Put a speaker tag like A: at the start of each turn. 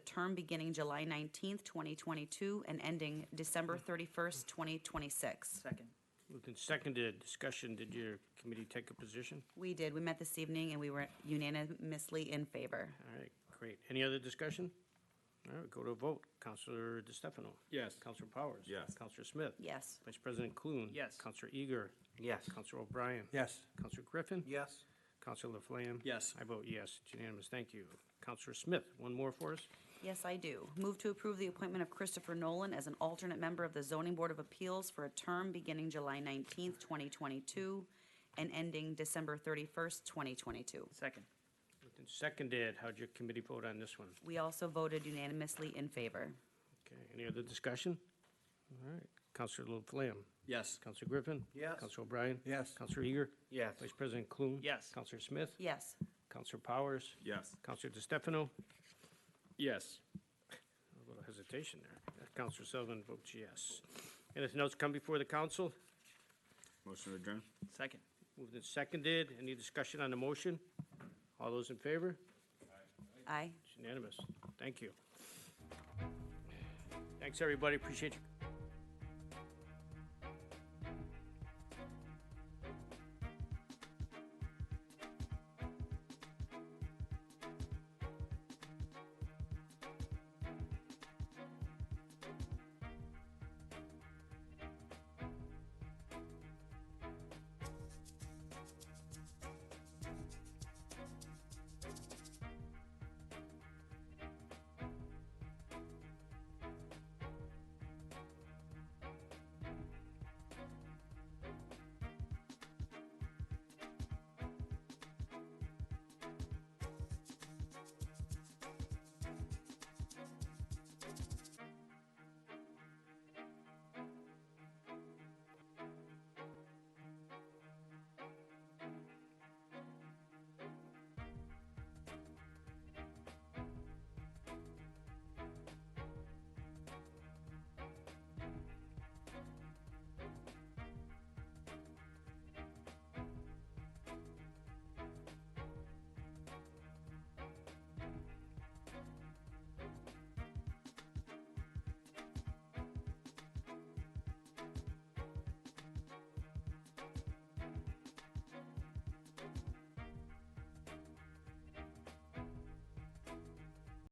A: term beginning July 19th, 2022, and ending December 31st, 2026.
B: Second.
C: Moved and seconded. Discussion, did your committee take a position?
A: We did, we met this evening, and we were unanimously in favor.
C: All right, great. Any other discussion? All right, go to a vote. Counselor DeStefano.
D: Yes.
C: Counselor Powers.
D: Yes.
C: Counselor Smith.
A: Yes.
C: Vice President Clune.
B: Yes.
C: Counselor Eager.
D: Yes.
C: Counselor O'Brien.
D: Yes.
C: Counselor Griffin.
D: Yes.
C: Counselor Laflamme.
D: Yes.
C: I vote yes. It's unanimous. Thank you. Counselor Smith, one more for us?
A: Yes, I do. Move to approve the appointment of Christopher Nolan as an alternate member of the Zoning Board of Appeals for a term beginning July 19th, 2022, and ending December 31st, 2022.
B: Second.
C: Moved and seconded. How'd your committee vote on this one?
A: We also voted unanimously in favor.
C: Okay, any other discussion? All right, Counselor Laflamme.
D: Yes.
C: Counselor Griffin.
D: Yes.
C: Counselor O'Brien.
D: Yes.
C: Counselor Eager.
D: Yes.
C: Vice President Clune.
B: Yes.
C: Counselor Smith.
A: Yes.
C: Counselor Powers.
D: Yes.
C: Counselor DeStefano.
D: Yes.
C: A little hesitation there. Uh, Counselor Sullivan votes yes. Anything else come before the council?
E: Motion to adjourn?
B: Second.
C: Moved and seconded. Any discussion on the motion? All those in favor?
A: Aye.
C: It's unanimous. Thank you. Thanks, everybody. Appreciate you.